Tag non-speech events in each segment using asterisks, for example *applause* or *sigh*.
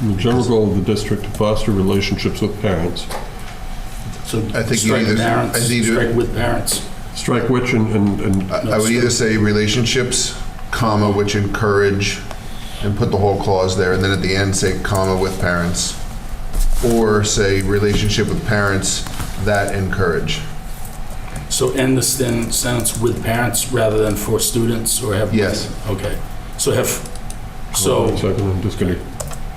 The general goal of the district to foster relationships with parents. So I think you strike either- parents, I think you- strike with parents. Strike which and, and, and I I would either say relationships, comma, which encourage, and put the whole clause there, and then at the end say comma with parents. Or say relationship with parents that encourage. So end the sen- sentence with parents rather than for students or have? Yes. Okay, so have, One so, second, I'm just gonna,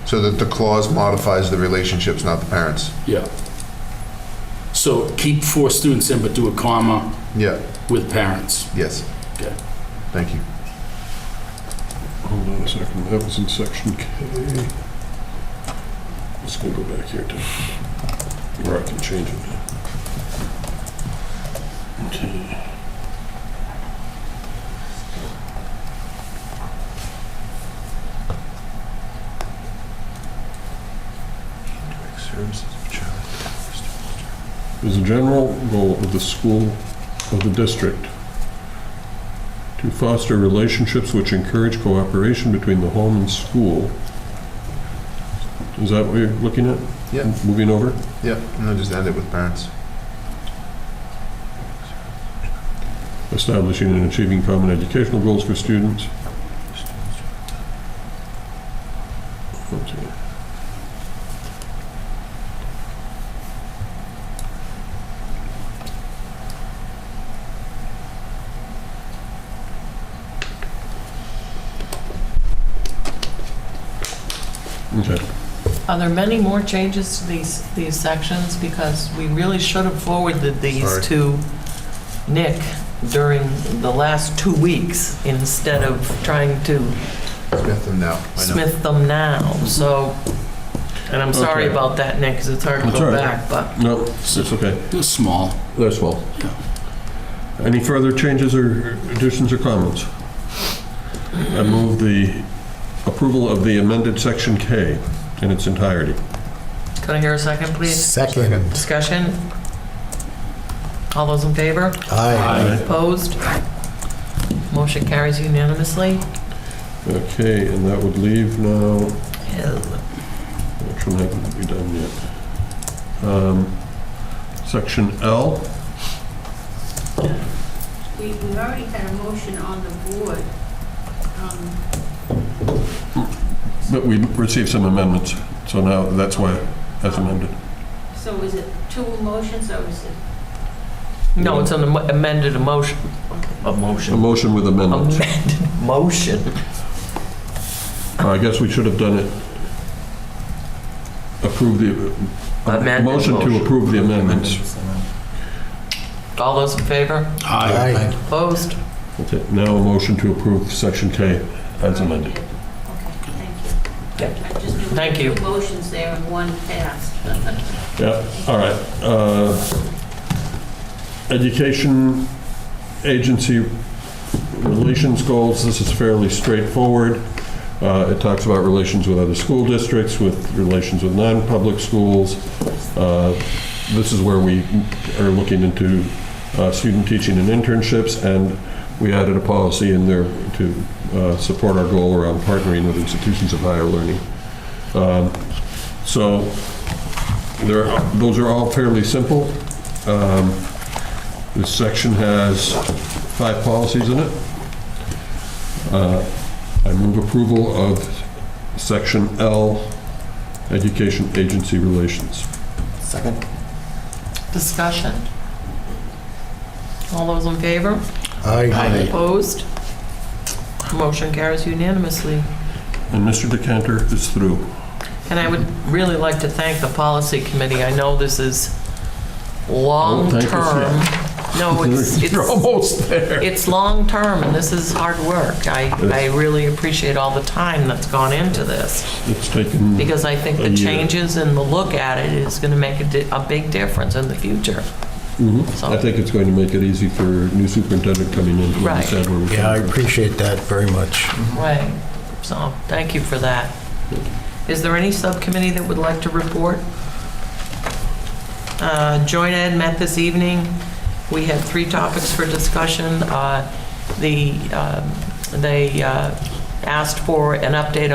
So that the clause modifies the relationships, not the parents. yeah. So keep four students in, but do a comma Yeah, with parents. yes. Okay. Thank you. hold on a second, that was in section K. Let's go go back here to where I can change it. Okay. is a general goal of the school, of the district, to foster relationships which encourage cooperation between the home and school. Is that what you're looking at? Yeah. Moving over? Yeah, and then just end it with parents. Establishing and achieving common educational goals for students. Okay. Okay. Are there many more changes to these, these sections? Because we really should have forwarded these Sorry. to Nick during the last two weeks instead of trying to Smith them now. I know. smith them now, so, and I'm sorry Okay. about that, Nick, because it's hard to That's go all right. back, but No, it's okay. They're small. That's well. Yeah. Any further changes or additions or comments? I move the approval of the amended Section K in its entirety. can I hear a second, please? Second. Discussion? All those in favor? Aye. Opposed? Motion carries unanimously. Okay, and that would leave now, Yeah. which one haven't we done yet? Um, Section L, We, we already had a motion on the board. Um, but we received some amendments, so now that's why that's amended. So is it two motions or is it? No, it's an am- amended emotion, a A motion. motion with amendments. *laughs* Amended motion. I guess we should have done it, approve the, Amendment motion to motion. approve the amendments. All those in favor? Aye. Opposed? Okay, now a motion to approve section K as amended. Okay, thank you. Yep. I just knew Thank there were you. two motions there and one passed. Yeah, all right. uh, Education agency relations goals, this is fairly straightforward. Uh, It talks about relations with other school districts, with relations with non-public schools. Uh, This is where we are looking into uh, student teaching and internships, and we added a policy in there to uh, support our goal around partnering with institutions of higher learning. Um, So there, those are all fairly simple. Um, This section has five policies in it. Uh, I move approval of section L, Education Agency Relations. Second. Discussion. All those in favor? Aye. Opposed? Motion carries unanimously. And Mr. Decanter is through. And I would really like to thank the policy committee. I know this is Oh, thank you, *laughs* long-term. No, Oh, it's, You're it's, almost there. it's long-term, and this is hard work. I, I really appreciate all the time that's gone into this. It's taken, because I think A the year. changes and the look at it is going to make a, di- a big difference in the future. Mhm. So- I think it's going to make it easy for new superintendent coming in to Right. understand where we're Yeah, I coming from. appreciate that very much. Right. So, thank you for that. Is there any subcommittee that would like to report? Uh, Joint Ed met this evening. We had three topics for discussion. Uh, The, um, they uh, asked for an update